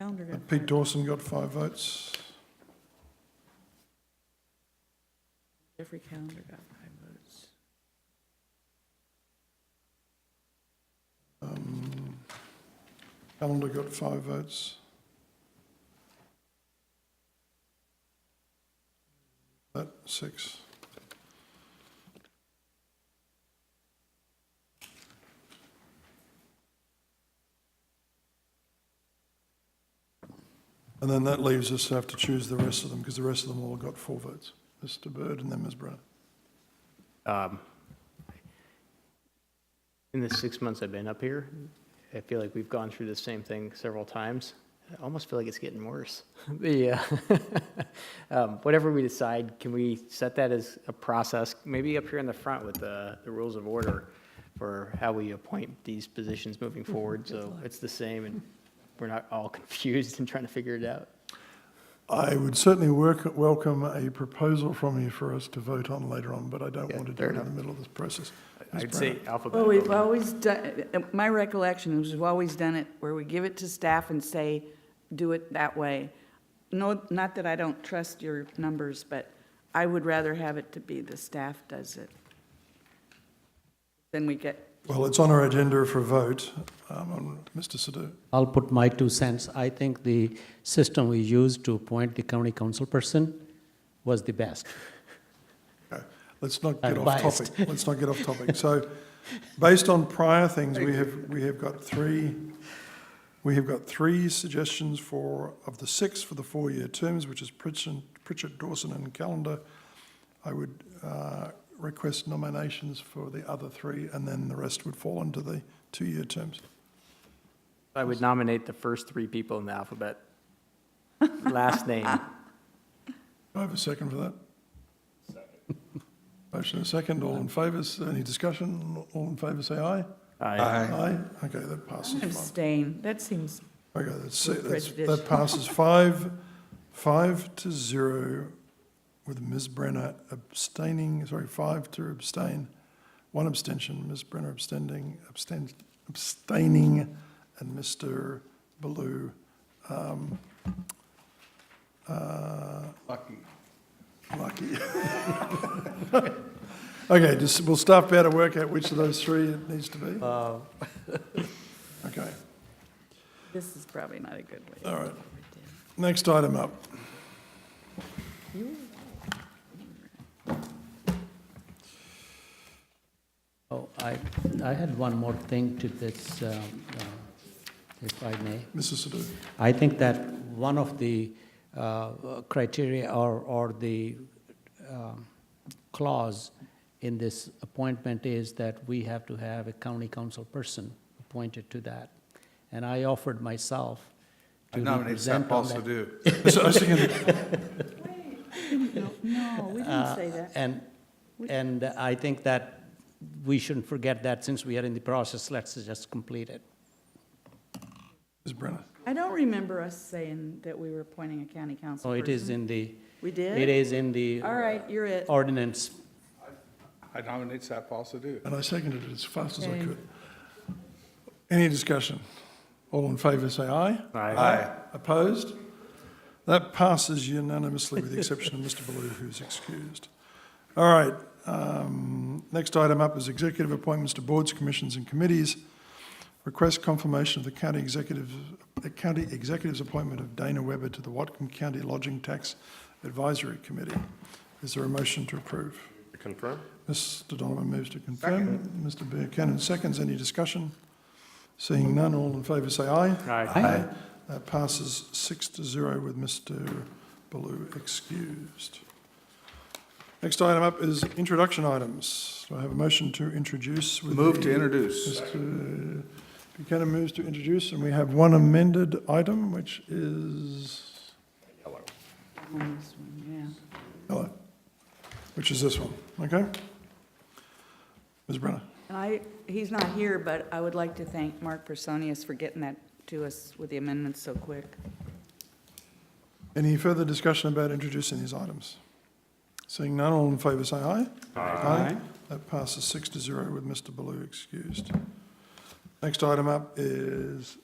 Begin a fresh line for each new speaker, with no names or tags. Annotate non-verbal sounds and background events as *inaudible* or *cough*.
counted it.
Pete Dawson got five votes.
Every calendar got five votes.
Um, Calendar got five votes. That, six. And then that leaves us to have to choose the rest of them, because the rest of them all got four votes. Mr Bird and then Ms Brenner.
Um, In the six months I've been up here, I feel like we've gone through the same thing several times. I almost feel like it's getting *laughs* worse. The, uh, um, whatever we decide, can we set that as a process, maybe up here in the front with the, the rules of order for how we appoint these positions moving forward, so it's the same and we're not all *laughs* confused and trying to figure it out?
I would certainly work, welcome a proposal from you for us to vote on later on, but I don't
Yeah,
want to do
fair
it in the
enough.
middle of this process. Ms.
I'd say
Brenner.
Well, we've
alphabetical.
always done, my recollection is we've always done it where we give it to staff and say, do it that way. No, not that I don't trust your numbers, but I would rather have it to be the staff does it. Then we get,
Well, it's on our agenda for a vote, um, on Mr. Sadoo.
I'll put my two cents. I think the system we used to appoint the county council person was the best.
Okay, Let's not
I'm
get off topic. *laughs*
biased.
Let's not get off topic. So, based on prior things, we have, we have got three, we have got three suggestions for, of the six for the four-year terms, which is Pritchard, Pritchard, Dawson and Calendar. I would, uh, request nominations for the other three, and then the rest would fall into the two-year terms.
I would nominate the first three people in
*laughs*
the alphabet. Last name.
Do I have a second for that? Motion and a second, all in favour, any discussion? All in favour, say aye. Aye. okay, that passes. five.
abstain. That seems.
Okay, that's, that's- that
Prejudicial.
passes five, five to zero with Ms Brenner abstaining, sorry, five to abstain, one abstention, Ms Brenner abstaining, abstain, abstaining, and Mr Baloo, um, uh,
Lucky.
Lucky. *laughs* Okay, just, will staff be able to work out which of those three it needs to be? Okay,
This is probably not a good way.
all right. Next item up.
Oh, I, I had one more thing to this, um, uh, if I may.
Mrs. Sadoo.
I think that one of the uh, criteria or, or the um, clause in this appointment is that we have to have a county council person appointed to that. And I offered myself
I
to
nominate Seth
represent on
Paul
that.
Sadoo.
*laughs*
So I was thinking,
No, we didn't say that.
And, and I think that we shouldn't forget that since we are in the process, let's just complete it.
Ms. Brenner.
I don't remember us saying that we were appointing a county council
So Oh, it is
person.
in the,
We
it
did?
is in the
All right, you're it.
ordinance.
I nominate Seth Paul Sadoo.
And I seconded it as fast as I
Okay.
could. Any discussion? All in favour, say aye.
Aye.
Opposed? That passes unanimously with the exception of Mr. Ballou, who's excused. All right, um, next item up is executive appointments to boards, commissions and committees. Request confirmation of the county executive, the county executive's appointment of Dana Weber to the Watcom County Lodging Tax Advisory Committee. Is there a motion to approve?
Confirm?
Mr. Donovan moves to confirm. Mr. Buchanan seconds. Any discussion? Seeing none, all in favour say aye.
Aye.
That passes six to zero with Mr. Baloo excused. Next item up is introduction items. Do I have a motion to introduce? with
Move to
the-
introduce.
Mr. Buchanan moves to introduce, and we have one amended item, which is,
On this one, yeah.
hello, which is this one, okay? Ms. Brenner?
And I, he's not here, but I would like to thank Mark Personius for getting that to us with the amendments so quick.
Any further discussion about introducing these items? Seeing none, all in favour say aye. Aye. That passes six to zero with Mr Baloo excused. Next item up is